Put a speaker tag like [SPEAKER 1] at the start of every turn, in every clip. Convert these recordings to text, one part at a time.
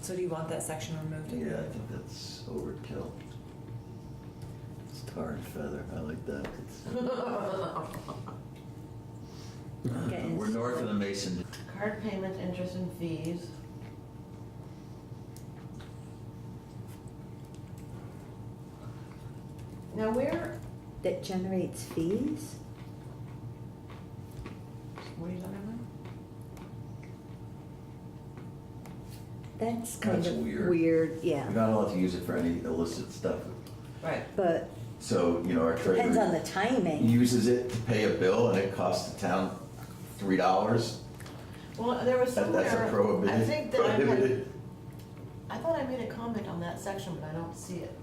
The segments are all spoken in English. [SPEAKER 1] So do you want that section removed?
[SPEAKER 2] Yeah, I think that's overkill. It's tar and feather, I like that. It's- Uh, We're north of the Mason.
[SPEAKER 3] Card payments, interest and fees. Now where,
[SPEAKER 4] that generates fees?
[SPEAKER 3] what are you talking
[SPEAKER 4] That's kind
[SPEAKER 2] That's
[SPEAKER 4] of
[SPEAKER 2] weird.
[SPEAKER 4] weird,
[SPEAKER 2] You're
[SPEAKER 4] yeah.
[SPEAKER 2] not allowed to use it for any illicit stuff.
[SPEAKER 3] about? Right.
[SPEAKER 4] But
[SPEAKER 2] So, you know, our
[SPEAKER 4] depends on
[SPEAKER 2] treasurer
[SPEAKER 4] the timing.
[SPEAKER 2] uses it to pay a bill and it costs the town three dollars.
[SPEAKER 3] Well, there was
[SPEAKER 2] That-
[SPEAKER 3] somewhere.
[SPEAKER 2] That's a
[SPEAKER 3] I
[SPEAKER 2] prohibited,
[SPEAKER 3] think that I had,
[SPEAKER 2] prohibited.
[SPEAKER 3] I thought I made a comment on that section, but I don't see it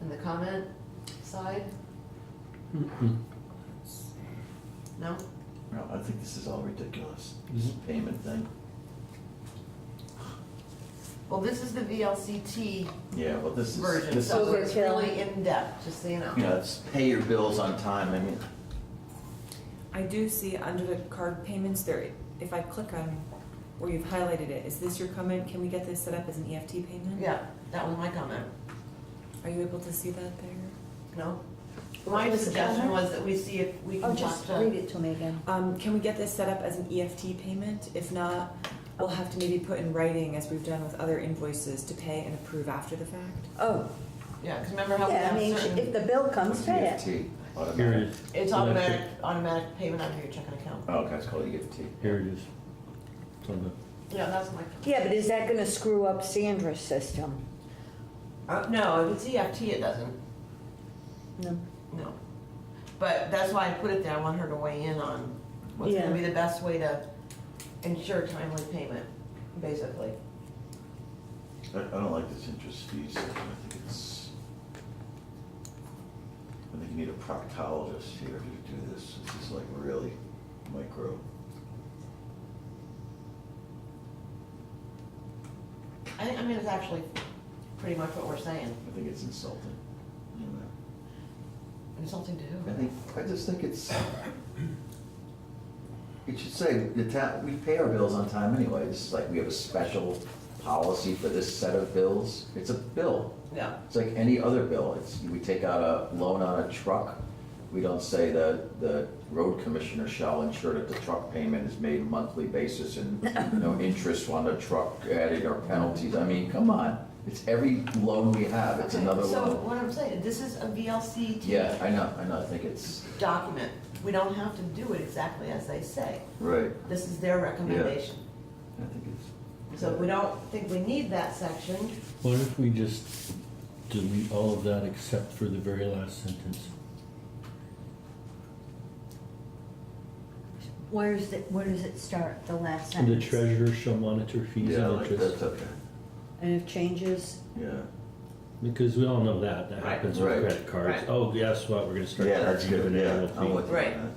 [SPEAKER 3] in the comment side.
[SPEAKER 5] Mm-hmm.
[SPEAKER 3] No?
[SPEAKER 2] No, I think this is all ridiculous, this
[SPEAKER 5] Mhm.
[SPEAKER 2] payment thing.
[SPEAKER 3] Well, this is the VLCT
[SPEAKER 2] Yeah, well, this is,
[SPEAKER 3] version,
[SPEAKER 2] this is,
[SPEAKER 3] so it's
[SPEAKER 4] Overkill.
[SPEAKER 3] really in-depth, just so you know.
[SPEAKER 2] you know, it's pay your bills on time, I mean,
[SPEAKER 1] I do see under the card payments there, if I click on where you've highlighted it, is this your comment? Can we get this set up as an EFT payment?
[SPEAKER 3] Yeah, that was my comment.
[SPEAKER 1] Are you able to see that there?
[SPEAKER 3] No?
[SPEAKER 4] What
[SPEAKER 3] My
[SPEAKER 4] was the
[SPEAKER 3] suggestion
[SPEAKER 4] comment?
[SPEAKER 3] was that we see if we
[SPEAKER 4] Oh,
[SPEAKER 3] can talk
[SPEAKER 4] just
[SPEAKER 3] to.
[SPEAKER 4] read it to me again.
[SPEAKER 1] Um, can we get this set up as an EFT payment? If not, we'll have to maybe put in writing, as we've done with other invoices, to pay and approve after the fact.
[SPEAKER 4] Oh,
[SPEAKER 3] Yeah, because remember how we
[SPEAKER 4] yeah, I
[SPEAKER 3] have
[SPEAKER 4] mean, if
[SPEAKER 3] certain,
[SPEAKER 4] the bill comes,
[SPEAKER 2] it's
[SPEAKER 4] pay it.
[SPEAKER 2] EFT. automatic.
[SPEAKER 5] Here it is.
[SPEAKER 3] it's
[SPEAKER 5] Well, that's
[SPEAKER 3] automatic, automatic payment out of your checking account.
[SPEAKER 2] Oh, okay, it's called EFT.
[SPEAKER 5] it. Here it is. It's on the-
[SPEAKER 3] Yeah, that's my.
[SPEAKER 4] Yeah, but is that gonna screw up Sandra's system?
[SPEAKER 3] Uh, no, if it's EFT, it doesn't,
[SPEAKER 4] No.
[SPEAKER 3] no. But that's why I put it there, I want her to weigh in on what's
[SPEAKER 4] Yeah.
[SPEAKER 3] gonna be the best way to ensure timely payment, basically.
[SPEAKER 2] I, I don't like this interest fees, I think it's, I think you need a proctologist here to do this, this is like really micro.
[SPEAKER 3] I, think- I mean, it's actually pretty much what we're saying,
[SPEAKER 2] I think it's insulting, you know.
[SPEAKER 3] insulting to
[SPEAKER 2] I
[SPEAKER 3] who?
[SPEAKER 2] think, I just think it's, it should say, the town, we pay our bills on time anyway, it's like we have a special policy for this set of bills, it's a bill.
[SPEAKER 3] Yeah,
[SPEAKER 2] It's like any other bill, it's, we take out a loan on a truck, we don't say that the road commissioner shall ensure that the truck payment is made monthly basis and no interest on the truck added or penalties, I mean, come on. It's every loan we have, it's
[SPEAKER 3] Okay,
[SPEAKER 2] another
[SPEAKER 3] So
[SPEAKER 2] loan.
[SPEAKER 3] what I'm saying, this is a VLCT.
[SPEAKER 2] Yeah, I know, I know, I think it's,
[SPEAKER 3] Document. We don't have to do it exactly as they say.
[SPEAKER 2] right,
[SPEAKER 3] This is their recommendation.
[SPEAKER 2] I think it's.
[SPEAKER 3] So we don't think we need that section.
[SPEAKER 5] What if we just delete all of that except for the very last sentence?
[SPEAKER 4] Where's the, where does it start, the last
[SPEAKER 5] And the
[SPEAKER 4] sentence?
[SPEAKER 5] treasurer shall monitor fees
[SPEAKER 2] Yeah,
[SPEAKER 5] and
[SPEAKER 2] like, that's
[SPEAKER 5] interest.
[SPEAKER 2] okay,
[SPEAKER 4] And if changes,
[SPEAKER 2] yeah.
[SPEAKER 5] Because we all know that, that
[SPEAKER 3] Right.
[SPEAKER 5] happens with
[SPEAKER 2] Right.
[SPEAKER 5] credit cards.
[SPEAKER 3] Right.
[SPEAKER 5] Oh, guess what, we're gonna start
[SPEAKER 2] Yeah, that's
[SPEAKER 5] charging you
[SPEAKER 2] good,
[SPEAKER 5] an
[SPEAKER 2] yeah,
[SPEAKER 5] annual
[SPEAKER 2] I'm
[SPEAKER 5] fee.
[SPEAKER 2] with you on
[SPEAKER 3] Right.
[SPEAKER 2] that.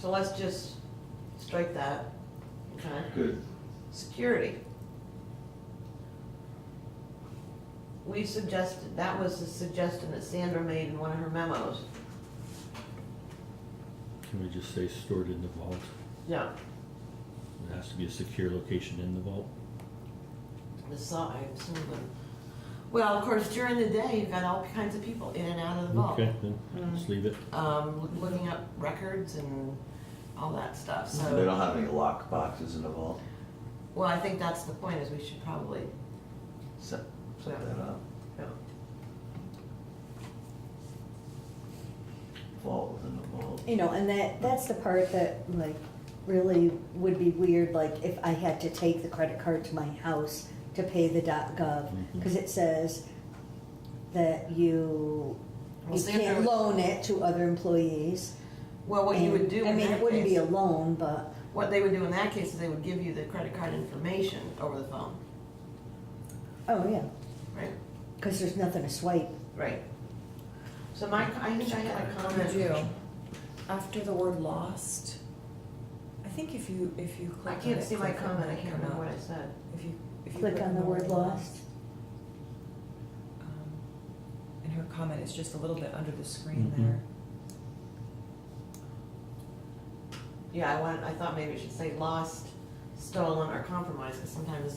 [SPEAKER 3] So let's just strike that. Okay.
[SPEAKER 2] Good,
[SPEAKER 3] Security. We suggested, that was the suggestion that Sandra made in one of her memos.
[SPEAKER 5] Can we just say stored in the vault?
[SPEAKER 3] Yeah.
[SPEAKER 5] It has to be a secure location in the vault.
[SPEAKER 3] The saw, I assume the, well, of course, during the day, you've got all kinds of people in and out of the vault. Mm.
[SPEAKER 5] Okay, then, just leave it.
[SPEAKER 3] um, loo- looking up records and all that stuff.
[SPEAKER 2] they don't
[SPEAKER 3] So,
[SPEAKER 2] have any lock boxes in the vault,
[SPEAKER 3] well, I think that's the point is we should probably,
[SPEAKER 2] set, set that up.
[SPEAKER 3] you know,
[SPEAKER 2] Vault within the vault.
[SPEAKER 4] you know, and that, that's the part that like really would be weird, like if I had to take the credit card to my house to pay the dot gov,
[SPEAKER 5] Mhm.
[SPEAKER 4] because it says that you,
[SPEAKER 3] Well,
[SPEAKER 4] you
[SPEAKER 3] Sandra
[SPEAKER 4] can't
[SPEAKER 3] was-
[SPEAKER 4] loan it to other employees.
[SPEAKER 3] well, what you would
[SPEAKER 4] And,
[SPEAKER 3] do
[SPEAKER 4] I
[SPEAKER 3] in
[SPEAKER 4] mean, it
[SPEAKER 3] that
[SPEAKER 4] wouldn't be
[SPEAKER 3] case,
[SPEAKER 4] a loan, but,
[SPEAKER 3] what they would do in that case is they would give you the credit card information over the phone,
[SPEAKER 4] oh, yeah,
[SPEAKER 3] right?
[SPEAKER 4] because there's nothing to swipe.
[SPEAKER 3] Right. So my, I think I had a comment.
[SPEAKER 1] Would you? After the word lost, I think if you, if you
[SPEAKER 3] I
[SPEAKER 1] click on
[SPEAKER 3] can't
[SPEAKER 1] it,
[SPEAKER 3] see my
[SPEAKER 1] click on
[SPEAKER 3] comment, I
[SPEAKER 1] it,
[SPEAKER 3] can't
[SPEAKER 1] come
[SPEAKER 3] remember
[SPEAKER 1] up.
[SPEAKER 3] what I said.
[SPEAKER 1] If you, if you
[SPEAKER 4] Click on the word lost.
[SPEAKER 1] um, And her comment is just a little bit under the screen
[SPEAKER 5] Mhm.
[SPEAKER 1] there.
[SPEAKER 3] Yeah, I wanted, I thought maybe it should say lost stolen or compromised, because sometimes